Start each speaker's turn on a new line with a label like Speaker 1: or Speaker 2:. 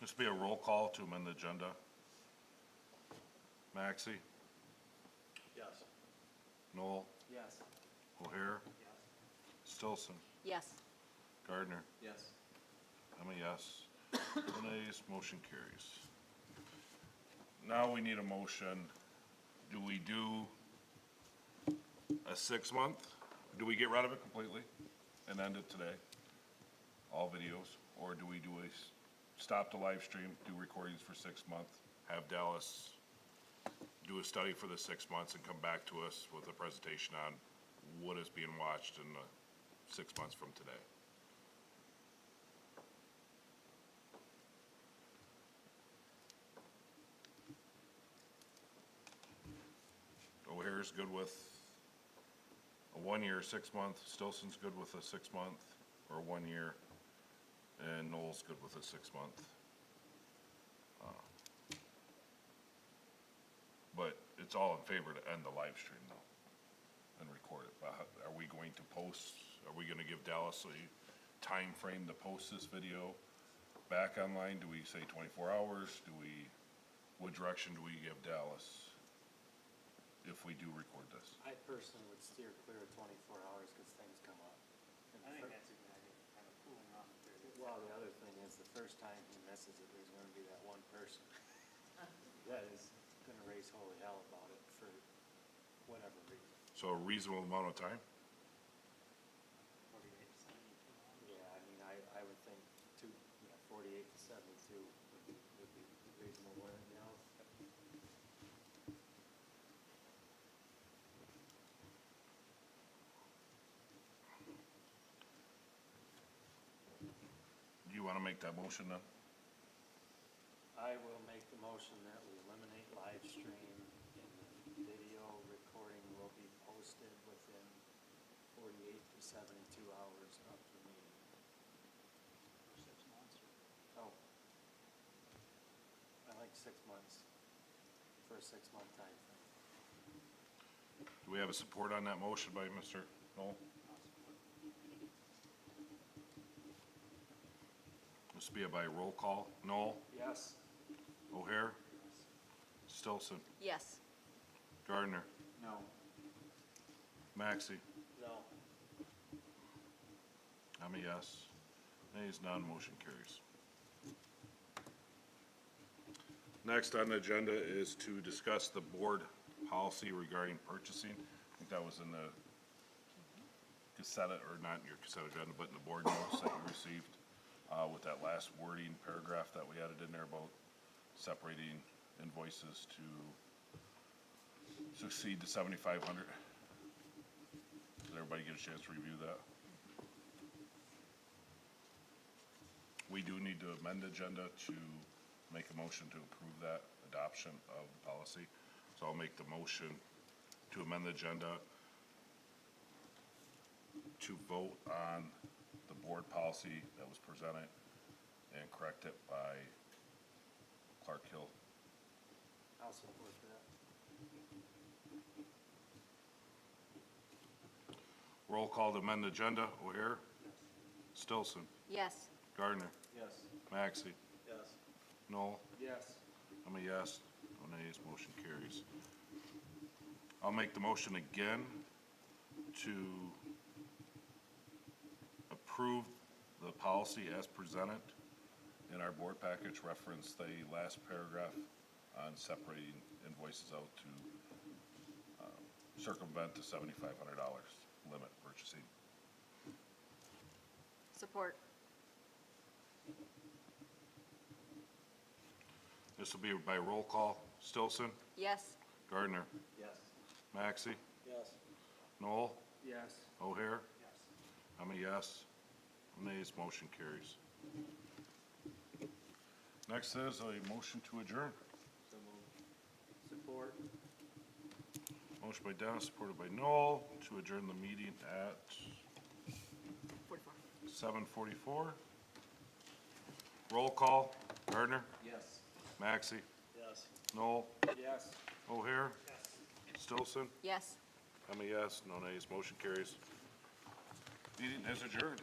Speaker 1: This be a roll call to amend the agenda. Maxey,
Speaker 2: Yes.
Speaker 1: Noel,
Speaker 2: Yes.
Speaker 1: O'Hare,
Speaker 2: Yes.
Speaker 1: Stillson,
Speaker 3: Yes.
Speaker 1: Gardner.
Speaker 2: Yes.
Speaker 1: I'm a yes. No nays, motion carries. Now we need a motion. Do we do a six-month? Do we get rid of it completely and end it today? All videos? Or do we do a, s- stop the live stream, do recordings for six months? Have Dallas do a study for the six months and come back to us with a presentation on what is being watched in the six months from today? O'Hare's good with a one-year, six-month, Stillson's good with a six-month or one year, and Noel's good with a six-month. Uh, But it's all in favor to end the live stream though, and record it. But how- are we going to post, are we gonna give Dallas a time frame to post this video back online? Do we say twenty-four hours? Do we, what direction do we give Dallas? if we do record this.
Speaker 4: I personally would steer clear of twenty-four hours because things come up. And
Speaker 2: I think
Speaker 4: fir-
Speaker 2: that's a good idea, kind of cooling off the period.
Speaker 4: Well, the other thing is, the first time he misses it, there's gonna be that one person that is gonna raise holy hell about it for whatever reason.
Speaker 1: So a reasonable amount of time?
Speaker 2: Forty-eight percent.
Speaker 4: Yeah, I mean, I, I would think two, you know, forty-eight to seventy-two would be, would be reasonable, you know?
Speaker 1: Do you want to make that motion then?
Speaker 4: I will make the motion that we eliminate live stream and the video recording will be posted within forty-eight to seventy-two hours of the meeting.
Speaker 2: For six months.
Speaker 4: Oh. I like six months, for a six-month time frame.
Speaker 1: Do we have a support on that motion by Mr. Knoll? This be a by roll call. Knoll,
Speaker 4: Yes.
Speaker 1: O'Hare, Stillson,
Speaker 3: Yes.
Speaker 1: Gardner,
Speaker 4: No.
Speaker 1: Maxey.
Speaker 4: No.
Speaker 1: I'm a yes. Nays, none, motion carries. Next on the agenda is to discuss the board policy regarding purchasing. I think that was in the cassette, or not in your cassette agenda, but in the board notes that you received, uh, with that last wording paragraph that we added in there about separating invoices to succeed to seventy-five hundred. Did everybody get a chance to review that? We do need to amend the agenda to make a motion to approve that adoption of the policy. So I'll make the motion to amend the agenda to vote on the board policy that was presented and correct it by Clark Hill.
Speaker 4: I'll support that.
Speaker 1: Roll call to amend the agenda. O'Hare? Stillson?
Speaker 3: Yes.
Speaker 1: Gardner?
Speaker 4: Yes.
Speaker 1: Maxey,
Speaker 4: Yes.
Speaker 1: Noel?
Speaker 4: Yes.
Speaker 1: I'm a yes, no nays, motion carries. I'll make the motion again to approve the policy as presented in our board package, reference the last paragraph on separating invoices out to um, circumvent the seventy-five hundred dollars limit purchasing.
Speaker 3: Support.
Speaker 1: This will be by roll call. Stillson,
Speaker 3: Yes.
Speaker 1: Gardner,
Speaker 4: Yes.
Speaker 1: Maxey,
Speaker 4: Yes.
Speaker 1: Noel,
Speaker 4: Yes.
Speaker 1: O'Hare,
Speaker 2: Yes.
Speaker 1: I'm a yes. Nays, motion carries. Next is a motion to adjourn.
Speaker 4: So moved. Support.
Speaker 1: Motion by Dennis, supported by Noel, to adjourn the meeting at
Speaker 3: Forty-four.
Speaker 1: seven forty-four. Roll call, Gardner,
Speaker 4: Yes.
Speaker 1: Maxey,
Speaker 4: Yes.
Speaker 1: Noel,
Speaker 4: Yes.
Speaker 1: O'Hare, Stillson.
Speaker 3: Yes.
Speaker 1: I'm a yes, no nays, motion carries. Meeting is adjourned.